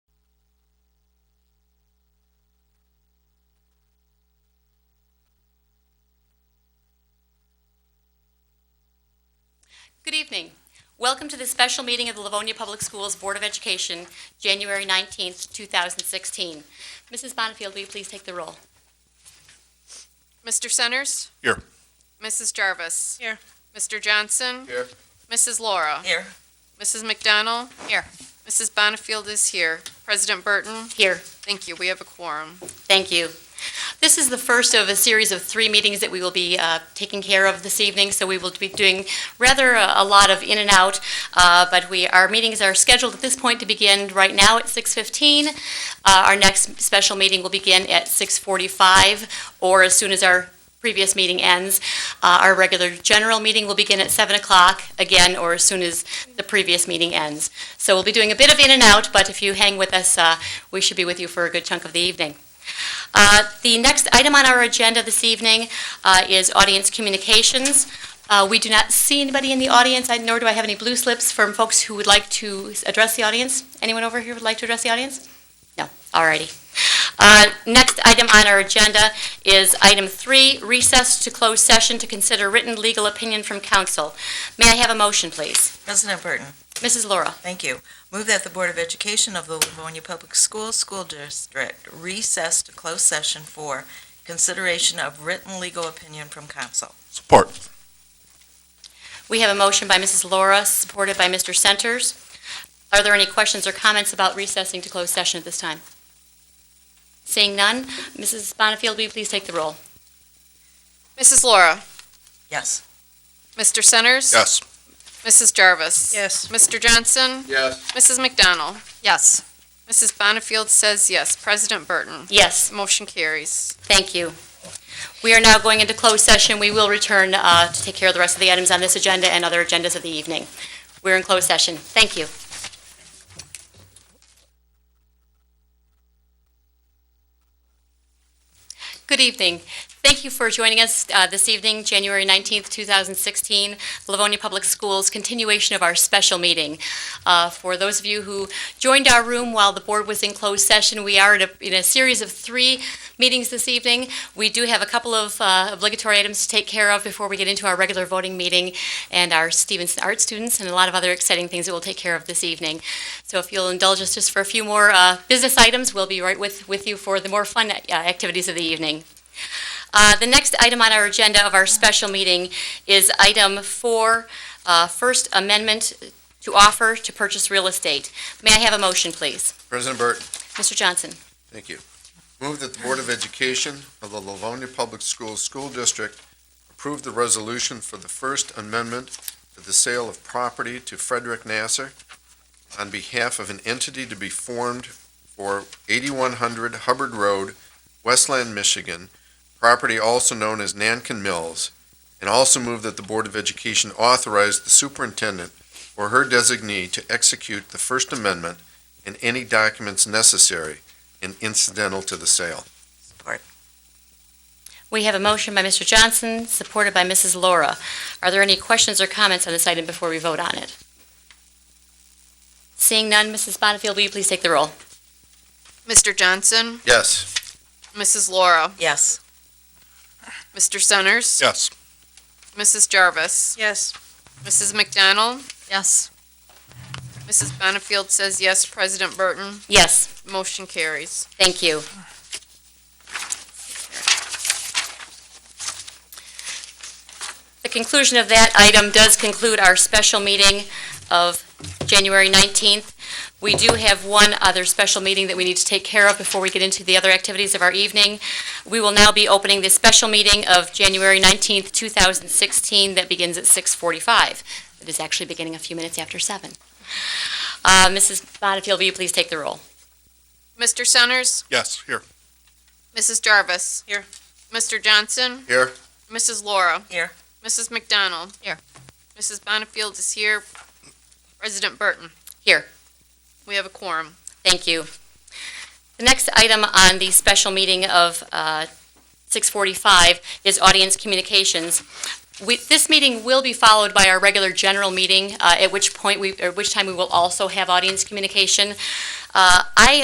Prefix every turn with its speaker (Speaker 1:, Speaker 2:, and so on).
Speaker 1: Good evening. Welcome to the special meeting of the Livonia Public Schools Board of Education, January 19th, 2016. Mrs. Bonnefield, will you please take the roll?
Speaker 2: Mr. Centers?
Speaker 3: Here.
Speaker 2: Mrs. Jarvis?
Speaker 4: Here.
Speaker 2: Mr. Johnson?
Speaker 3: Here.
Speaker 2: Mrs. Laura?
Speaker 4: Here.
Speaker 2: Mrs. McDonald? Here. Mrs. Bonnefield is here. President Burton?
Speaker 1: Here.
Speaker 2: Thank you, we have a quorum.
Speaker 1: Thank you. This is the first of a series of three meetings that we will be uh, taking care of this evening, so we will be doing rather a a lot of in and out, uh, but we, our meetings are scheduled at this point to begin right now at 6:15. Uh, Our next special meeting will begin at 6:45, or as soon as our previous meeting ends. Uh, Our regular general meeting will begin at 7 o'clock, again, or as soon as the previous meeting ends. So we'll be doing a bit of in and out, but if you hang with us, uh, we should be with you for a good chunk of the evening. Uh, The next item on our agenda this evening uh, is audience communications. Uh, We do not see anybody in the audience, and nor do I have any blue slips from folks who would like to address the audience. Anyone over here would like to address the audience? No, all righty. Uh, Next item on our agenda is item three, recess to closed session to consider written legal opinion from counsel. May I have a motion, please?
Speaker 4: President Burton,
Speaker 1: Mrs. Laura?
Speaker 4: thank you. Move that the Board of Education of the Livonia Public Schools School District recess to close session for consideration of written legal opinion from council.
Speaker 3: Support.
Speaker 1: We have a motion by Mrs. Laura, supported by Mr. Centers. Are there any questions or comments about recessing to closed session at this time? Seeing none, Mrs. Bonnefield, will you please take the roll?
Speaker 2: Mrs. Laura?
Speaker 4: Yes.
Speaker 2: Mr. Centers?
Speaker 3: Yes.
Speaker 2: Mrs. Jarvis?
Speaker 4: Yes.
Speaker 2: Mr. Johnson?
Speaker 3: Yes.
Speaker 2: Mrs. McDonald? Yes. Mrs. Bonnefield says yes. President Burton?
Speaker 1: Yes,
Speaker 2: Motion carries.
Speaker 1: thank you. We are now going into closed session. We will return uh, to take care of the rest of the items on this agenda and other agendas of the evening. We're in closed session. Thank you. Good evening. Thank you for joining us uh, this evening, January 19th, 2016, Livonia Public Schools, continuation of our special meeting. Uh, For those of you who joined our room while the board was in closed session, we are at a- in a series of three meetings this evening. We do have a couple of uh, obligatory items to take care of before we get into our regular voting meeting and our Stevenson Art students and a lot of other exciting things that we'll take care of this evening. So if you'll indulge us just for a few more uh, business items, we'll be right with, with you for the more fun uh, activities of the evening. Uh, The next item on our agenda of our special meeting is item four, uh, First Amendment to offer to purchase real estate. May I have a motion, please?
Speaker 5: President Burton,
Speaker 1: Mr. Johnson?
Speaker 5: thank you. Move that the Board of Education of the Livonia Public Schools School District approve the resolution for the First Amendment to the sale of property to Frederick Nasser on behalf of an entity to be formed for 8100 Hubbard Road, Westland, Michigan, property also known as Nankin Mills, and also move that the Board of Education authorize the superintendent or her designee to execute the First Amendment and any documents necessary and incidental to the sale.
Speaker 4: Support.
Speaker 1: We have a motion by Mr. Johnson, supported by Mrs. Laura. Are there any questions or comments on this item before we vote on it? Seeing none, Mrs. Bonnefield, will you please take the roll?
Speaker 2: Mr. Johnson?
Speaker 5: Yes.
Speaker 2: Mrs. Laura?
Speaker 4: Yes.
Speaker 2: Mr. Centers?
Speaker 3: Yes.
Speaker 2: Mrs. Jarvis?
Speaker 4: Yes.
Speaker 2: Mrs. McDonald?
Speaker 4: Yes.
Speaker 2: Mrs. Bonnefield says yes. President Burton?
Speaker 1: Yes.
Speaker 2: Motion carries.
Speaker 1: Thank you. The conclusion of that item does conclude our special meeting of January 19th. We do have one other special meeting that we need to take care of before we get into the other activities of our evening. We will now be opening the special meeting of January 19th, 2016, that begins at 6:45. It is actually beginning a few minutes after 7. Uh, Mrs. Bonnefield, will you please take the roll?
Speaker 2: Mr. Centers?
Speaker 3: Yes. Here.
Speaker 2: Mrs. Jarvis?
Speaker 4: Here.
Speaker 2: Mr. Johnson?
Speaker 5: Here?
Speaker 2: Mrs. Laura?
Speaker 4: Here.
Speaker 2: Mrs. McDonald?
Speaker 1: Here.
Speaker 2: Mrs. Bonnefield is here. President Burton?
Speaker 1: Here.
Speaker 2: We have a quorum.
Speaker 1: Thank you. The next item on the special meeting of uh, 6:45 is audience communications. We- This meeting will be followed by our regular general meeting, uh, at which point we, at which time we will also have audience communication. Uh, I